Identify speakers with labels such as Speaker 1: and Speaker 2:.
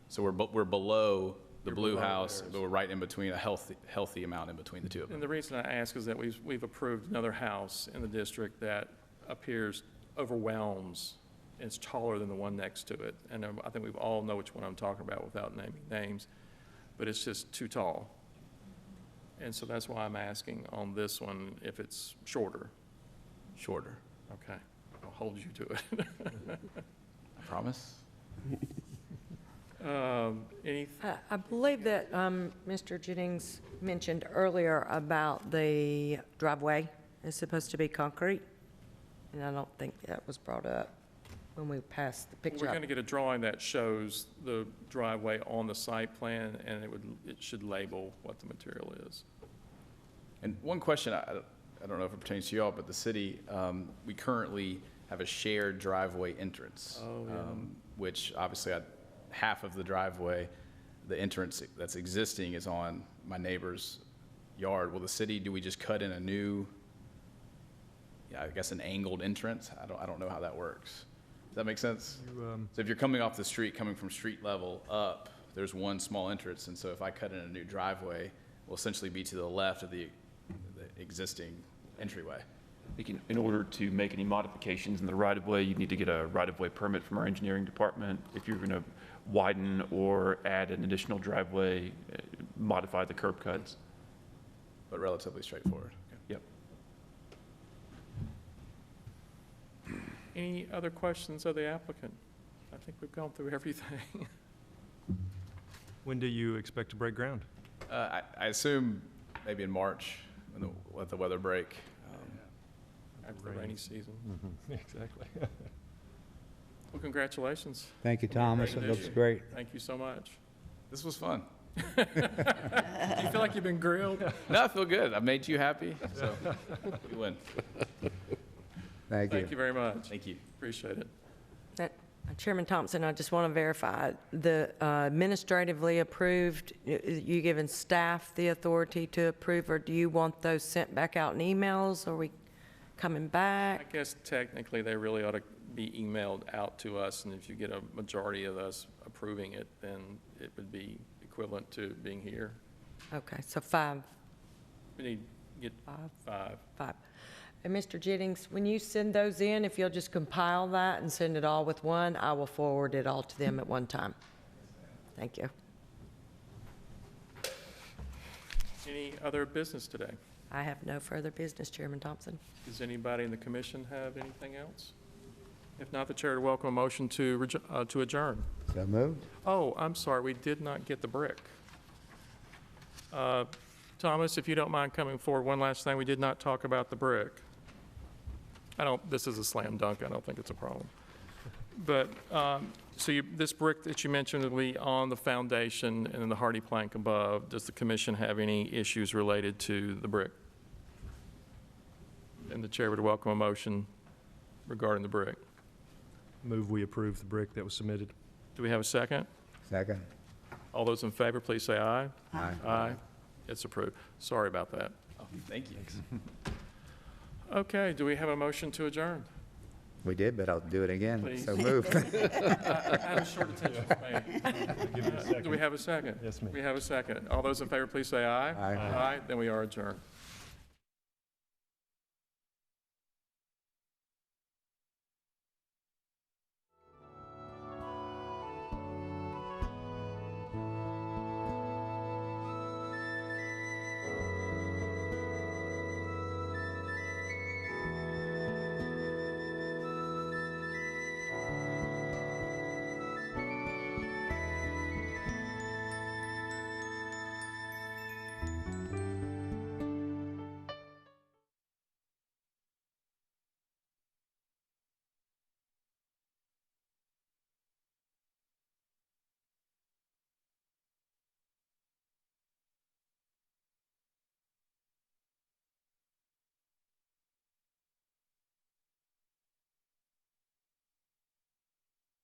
Speaker 1: So we're, bu- we're below the
Speaker 2: You're
Speaker 1: blue
Speaker 2: below
Speaker 1: house,
Speaker 2: theirs.
Speaker 1: but we're right in between, a healthy, healthy amount in between the two of them.
Speaker 2: And the reason I ask is that we've, we've approved another house in the district that appears overwhelms, it's taller than the one next to it. And um, I think we all know which one I'm talking about without naming names, but it's just too tall. And so that's why I'm asking on this one if it's shorter. Mm-hmm.
Speaker 1: Shorter,
Speaker 2: Okay, I'll hold you to it.
Speaker 1: I promise.
Speaker 2: Um, Any,
Speaker 3: I- I believe that um, Mr. Jennings mentioned earlier about the driveway is supposed to be concrete, and I don't think that was brought up when we passed the
Speaker 2: we're
Speaker 3: picture.
Speaker 2: going
Speaker 3: up.
Speaker 2: to get a drawing that shows the driveway on the site plan, and it would, it should label what the material is.
Speaker 1: And one question, I, I don't know if it pertains to y'all, but the city, um, we currently have a shared driveway entrance.
Speaker 2: Oh, yeah.
Speaker 1: um, Which obviously I, half of the driveway, the entrance that's existing is on my neighbor's yard. Will the city, do we just cut in a new, yeah, I guess an angled entrance? I don't, I don't know how that works. Does that make sense? So if you're coming off the street, coming from street level up, there's one small entrance, and so if I cut in a new driveway, will essentially be to the left of the, the existing entryway.
Speaker 4: I think in- in order to make any modifications in the right-of-way, you'd need to get a right-of-way permit from our engineering department. If you're going to widen or add an additional driveway, eh, modify the curb cuts.
Speaker 1: But relatively straightforward.
Speaker 4: Yep.
Speaker 2: Any other questions of the applicant? I think we've gone through everything.
Speaker 5: When do you expect to break ground?
Speaker 1: Uh, I, I assume maybe in March, when the, let the weather break. Um,
Speaker 2: After the rainy season.
Speaker 5: Exactly.
Speaker 2: Well, congratulations.
Speaker 6: Thank you, Thomas. It looks great.
Speaker 2: Thank you so much.
Speaker 1: This was fun.
Speaker 2: Do you feel like you've been grilled?
Speaker 1: No, I feel good. I made you happy, so we win.
Speaker 6: Thank you.
Speaker 2: Thank you very much.
Speaker 1: Thank you.
Speaker 2: Appreciate it.
Speaker 3: That- Uh, Chairman Thompson, I just want to verify, the uh, administratively approved, y- y- you giving staff the authority to approve, or do you want those sent back out in emails? Are we coming
Speaker 2: I
Speaker 3: back?
Speaker 2: guess technically, they really ought to be emailed out to us, and if you get a majority of us approving it, then it would be equivalent to being here.
Speaker 3: Okay, so five,
Speaker 2: We need to get
Speaker 3: five.
Speaker 2: five.
Speaker 3: Five. And Mr. Jennings, when you send those in, if you'll just compile that and send it all with one, I will forward it all to them at one time. Thank you.
Speaker 2: Any other business today?
Speaker 3: I have no further business, Chairman Thompson.
Speaker 2: Does anybody in the commission have anything else? If not, the chair would welcome a motion to rejo- uh, to adjourn.
Speaker 6: So moved.
Speaker 2: Oh, I'm sorry, we did not get the brick. Uh, Thomas, if you don't mind coming forward, one last thing, we did not talk about the brick. I don't, this is a slam dunk, I don't think it's a problem. But, um, so you, this brick that you mentioned will be on the foundation and then the hardy plank above. Does the commission have any issues related to the brick? And the chair would welcome a motion regarding the brick.
Speaker 5: Move we approve the brick that was submitted.
Speaker 2: Do we have a second?
Speaker 6: Second.
Speaker 2: All those in favor, please say aye.
Speaker 6: Aye.
Speaker 2: Aye. It's approved. Sorry about that.
Speaker 1: Oh, thank you.
Speaker 2: Okay, do we have a motion to adjourn?
Speaker 6: We did, but I'll do it again.
Speaker 2: Please.
Speaker 6: So moved.
Speaker 2: I had a short attention span. Do we have a second?
Speaker 5: Yes, ma'am.
Speaker 2: We have a second. All those in favor, please say aye.
Speaker 6: Aye.
Speaker 2: Aye, then we are adjourned.